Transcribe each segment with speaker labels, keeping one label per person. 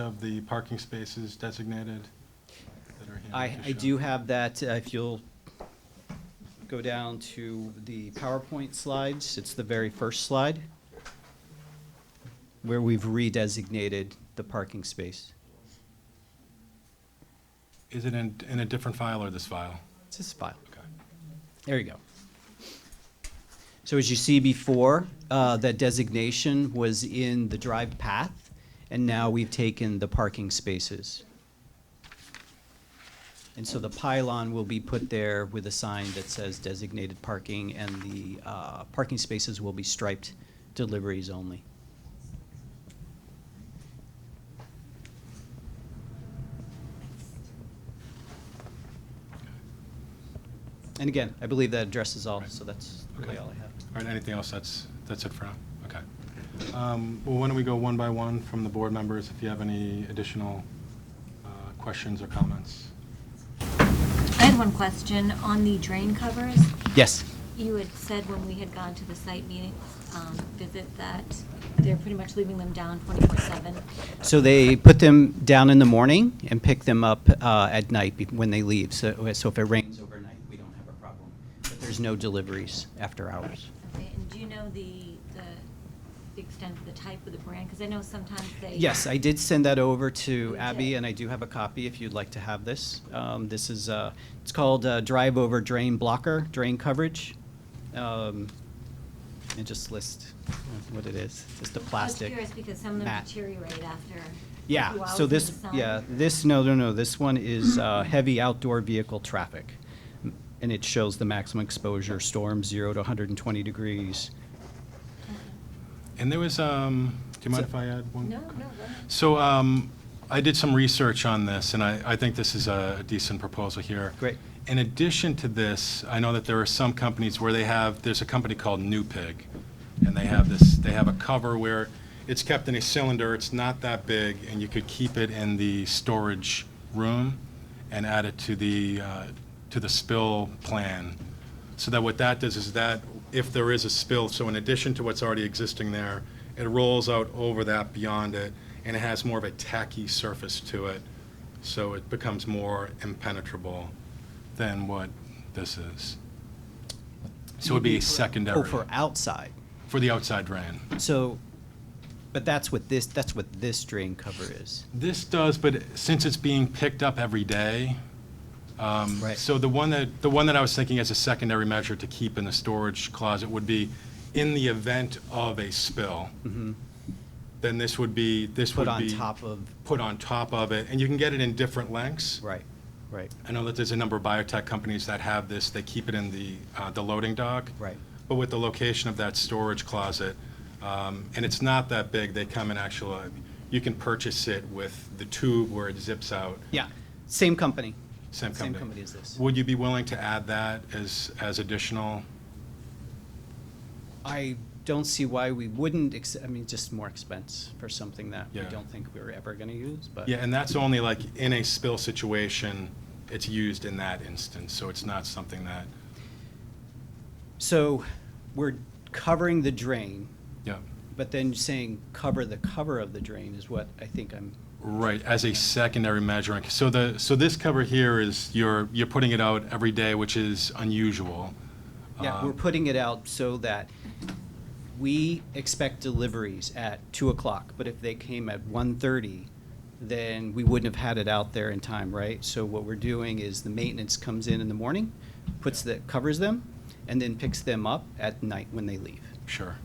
Speaker 1: of the parking spaces designated that are here?
Speaker 2: I, I do have that, uh, if you'll go down to the PowerPoint slides, it's the very first slide, where we've redesignated the parking space.
Speaker 1: Is it in, in a different file or this file?
Speaker 2: It's this file.
Speaker 1: Okay.
Speaker 2: There you go. So as you see before, uh, that designation was in the drive path, and now we've taken the parking spaces. And so the pylon will be put there with a sign that says designated parking, and the uh, parking spaces will be striped deliveries only. And again, I believe that addresses all, so that's really
Speaker 1: Okay.
Speaker 2: all I have.
Speaker 1: All right, anything else? That's, that's it for now? Okay. Um, Well, why don't we go one by one from the board members, if you have any additional uh, questions or comments?
Speaker 3: I had one question on the drain covers.
Speaker 2: Yes.
Speaker 3: You had said when we had gone to the site meeting, um, visit that they're pretty much leaving them down twenty-four seven.
Speaker 2: So they put them down in the morning and pick them up uh, at night be- when they leave. So, so if it rains overnight, we don't have a problem. But there's no deliveries after hours.
Speaker 3: Okay, and do you know the, the the extent of the type of the brand? Because I know sometimes they.
Speaker 2: Yes, I did send that over to
Speaker 3: did.
Speaker 2: Abby, and I do have a copy if you'd like to have this. Um, This is, uh, it's called uh, Drive Over Drain Blocker, Drain Coverage. Um, It just lists what it is, just a plastic.
Speaker 3: I was curious because some of them
Speaker 2: mat.
Speaker 3: deteriorate after. a few
Speaker 2: Yeah,
Speaker 3: hours
Speaker 2: so
Speaker 3: in the
Speaker 2: this,
Speaker 3: sun.
Speaker 2: yeah, this, no, no, no, this one is uh, heavy outdoor vehicle traffic. M- And it shows the maximum exposure, storm zero to 120 degrees.
Speaker 1: And there was, um, do you mind if I add one?
Speaker 3: No, no, go ahead.
Speaker 1: So um, I did some research on this, and I, I think this is a decent proposal here.
Speaker 2: Great.
Speaker 1: In addition to this, I know that there are some companies where they have, there's a company called New Pig, and they have this, they have a cover where it's kept in a cylinder, it's not that big, and you could keep it in the storage room and add it to the, uh, to the spill plan. So that what that does is that, if there is a spill, so in addition to what's already existing there, it rolls out over that beyond it, and it has more of a tacky surface to it, so it becomes more impenetrable than what this is. So it would be a secondary
Speaker 2: Oh, for outside.
Speaker 1: for the outside drain.
Speaker 2: So, but that's what this, that's what this drain cover is.
Speaker 1: This does, but since it's being picked up every day, um,
Speaker 2: Right.
Speaker 1: so the one that, the one that I was thinking as a secondary measure to keep in the storage closet would be in the event of a spill,
Speaker 2: Mhm.
Speaker 1: then this would be, this would
Speaker 2: Put
Speaker 1: be.
Speaker 2: on top of,
Speaker 1: Put on top of it, and you can get it in different lengths.
Speaker 2: right, right,
Speaker 1: I know that there's a number of biotech companies that have this, they keep it in the, uh, the loading dock.
Speaker 2: right.
Speaker 1: But with the location of that storage closet, um, and it's not that big, they come in actual, uh, you can purchase it with the tube where it zips out,
Speaker 2: Yeah, same company.
Speaker 1: same
Speaker 2: Same
Speaker 1: company.
Speaker 2: company as this.
Speaker 1: Would you be willing to add that as, as additional?
Speaker 2: I don't see why we wouldn't, ex- I mean, just more expense for something that we
Speaker 1: Yeah.
Speaker 2: don't think we're ever going to use, but.
Speaker 1: Yeah, and that's only like in a spill situation, it's used in that instance, so it's not something that,
Speaker 2: So we're covering the drain,
Speaker 1: yeah.
Speaker 2: but then saying cover the cover of the drain is what I think I'm,
Speaker 1: Right, as a secondary measuring. So the, so this cover here is, you're, you're putting it out every day, which is unusual.
Speaker 2: yeah,
Speaker 1: Um,
Speaker 2: we're putting it out so that we expect deliveries at two o'clock, but if they came at one thirty, then we wouldn't have had it out there in time, right? So what we're doing is the maintenance comes in in the morning, puts the, covers them, and then picks them up at night when they leave.
Speaker 1: Sure.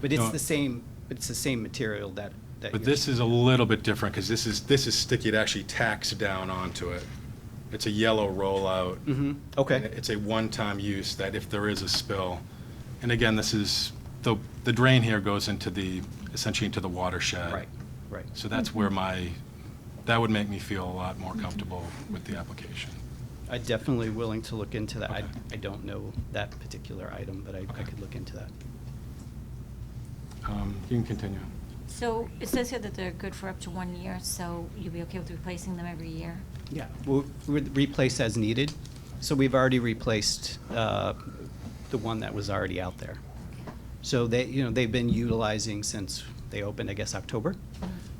Speaker 2: But it's
Speaker 1: No.
Speaker 2: the same, but it's the same material that, that.
Speaker 1: But
Speaker 2: you're-
Speaker 1: this is a little bit different, because this is, this is sticky, it actually tacks down onto it. It's a yellow rollout.
Speaker 2: Mhm,
Speaker 1: And
Speaker 2: okay,
Speaker 1: It's a one-time use that if there is a spill, and again, this is, the, the drain here goes into the, essentially into the watershed.
Speaker 2: right, right.
Speaker 1: So that's where my, that would make me feel a lot more comfortable with the application.
Speaker 2: i definitely willing to look into that. I,
Speaker 1: Okay.
Speaker 2: I don't know that particular item, but I, I
Speaker 1: Okay.
Speaker 2: could look into that.
Speaker 1: Um, You can continue.
Speaker 3: So it says here that they're good for up to one year, so you'd be okay with replacing them every year?
Speaker 2: Yeah, we'll re- replace as needed. So we've already replaced, uh, the one that was already out there. So they, you know, they've been utilizing since they opened, I guess, October.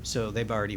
Speaker 2: So they've already